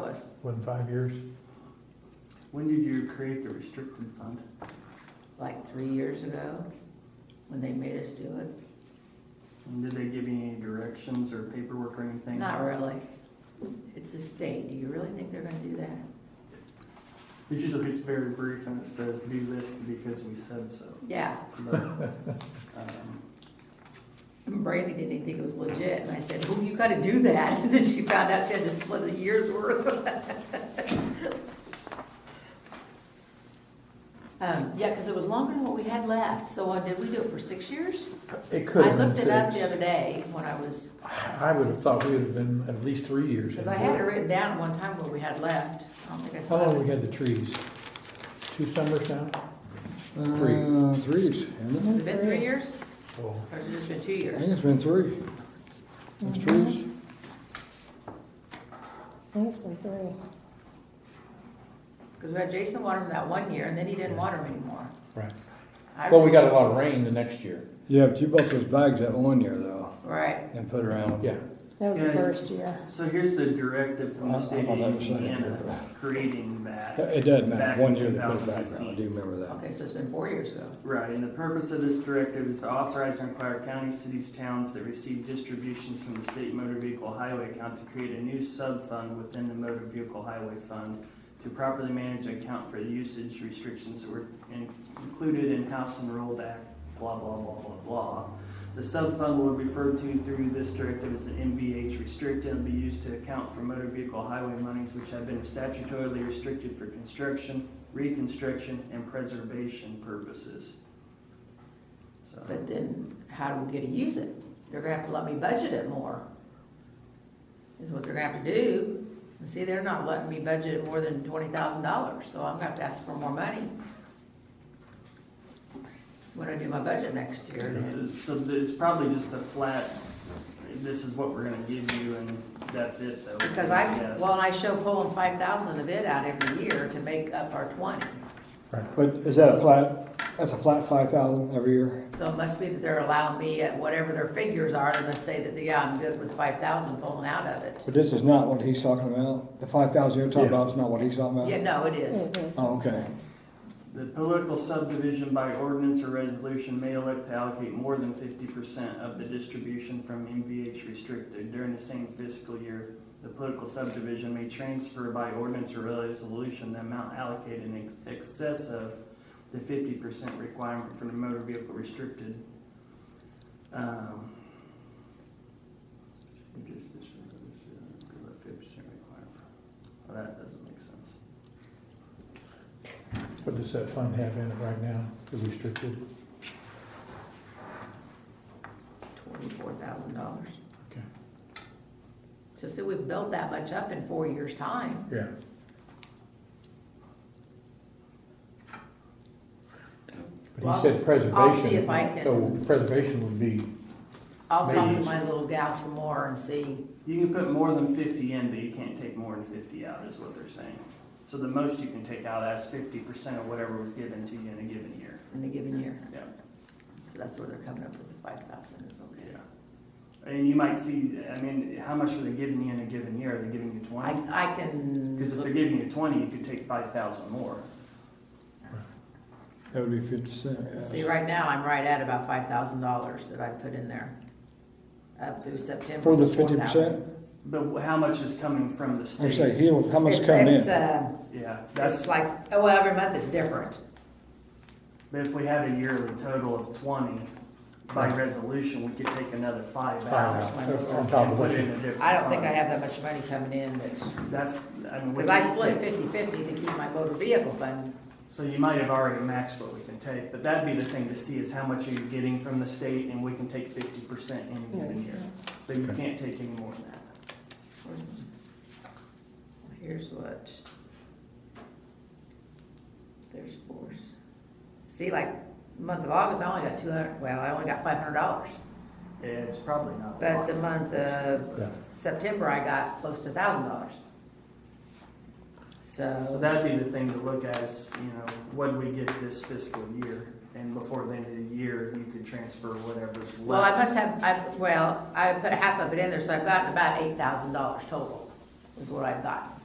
was. What, in five years? When did you create the restricted fund? Like three years ago, when they made us do it. And did they give you any directions or paperwork or anything? Not really. It's the state. Do you really think they're gonna do that? It usually gets very brief and it says, do this because we said so. Yeah. But, um, And Brandy didn't even think it was legit, and I said, "Oh, you gotta do that." And then she found out she had to split a year's worth. Um, yeah, because it was longer than what we had left, so uh, did we do it for six years? It could have I been looked it up the six. other day when I was, I would have thought we would have been at least three years. because in I had it there. written down one time what we had left. I don't think I How saw long we it. had the trees? Two summers now? Uh, threes, hasn't it? Has it been three years, Oh, or has it just been two I years? think it's been three. It's Mm-hmm. trees. I think it's been three. Because we had Jason water them that one year, and then he didn't water them anymore. right. I was Well, we just- got a lot of rain the next year. Yeah, but you bought those bags that one year though, Right, and put around. Yeah. That was the Yeah. first year. So here's the directive from the I'm- I'm state of on the other side of Indiana, it. creating that. It does matter, one Back year in they put it back around, I 2015. do remember that. okay, so it's been four years ago. Right, and the purpose of this directive is to authorize and require county, cities, towns that receive distributions from the state motor vehicle highway account to create a new sub-fund within the motor vehicle highway fund to properly manage and account for the usage restrictions that were in- included in House and Rule Act, blah, blah, blah, blah, blah. The sub-fund will be referred to through this directive as an MVH restricted and be used to account for motor vehicle highway monies which have been statutorily restricted for construction, reconstruction, and preservation purposes. So, But then how do we get to use it? They're gonna have to let me budget it more. Is what they're gonna have to do. And see, they're not letting me budget it more than twenty thousand dollars, so I'm gonna have to ask for more money. When I do my budget next year, then- so it's probably just a flat, this is what we're gonna give you and that's it though. because I, guess. well, and I show pulling five thousand of it out every year to make up our twenty. But is that a flat, that's a flat five thousand every year? So it must be that they're allowing me at whatever their figures are, they must say that, yeah, I'm good with five thousand pulling out of it. But this is not what he's talking about, the five thousand you're talking Yeah. about is not what he's talking about? Yeah, no, it is. It is. Oh, okay. The political subdivision by ordinance or resolution may elect to allocate more than fifty percent of the distribution from MVH restricted during the same fiscal year. The political subdivision may transfer by ordinance or resolution the amount allocated in ex- excess of the fifty percent requirement for the motor vehicle restricted. Um, just- just- just, uh, 50% requirement for- well, That doesn't make sense. What does that fund have in it right now, the restricted? twenty-four thousand dollars. Okay. So see, we've built that much up in four years' time. Yeah. Well, But I'll he s- said preservation. I'll see if I can- So preservation would be, I'll talk to Maybe. my little gal some more and see, You can put more than fifty in, but you can't take more than fifty out, is what they're saying. So the most you can take out is fifty percent of whatever was given to you in a given year. in a given year. Yeah. So that's where they're coming up with the five thousand is okay. And you might see, I mean, how much are they giving you in a given year? Are they giving you I, twenty? I can. Because if they're giving you twenty, you could take five thousand more. That would be fifty cent, See, right now, I'm right at about five thousand dollars that I put in there. Up through September. For the it's 4,000. 50%? But how much is coming from the I say, state? he, will- how much It's- coming It's, in? uh, Yeah, it's that's, like, oh, well, every month is different. but if we had a yearly total of twenty, by resolution, we could take another five out. on top And of put what it in you, a different. I don't think I fund. have that much money coming in, but. That's, I mean. we Because I could split take- 50/50 to keep my motor vehicle fund. So you might have already maxed what we can take, but that'd be the thing to see is how much are you getting from the state, and we can take fifty percent in a given year. But you can't take any more than that. Here's what. There's force. See, like, month of August, I only got two hundred, well, I only got five hundred dollars. It's probably not. a But lot. the month of yeah. September, I got close to thousand dollars. So So, that'd be the thing to look at is, you know, what do we get this fiscal year? And before the end of the year, you could transfer whatever's left. well, I must have, I, well, I put half of it in there, so I've gotten about eight thousand dollars total, is what I've gotten.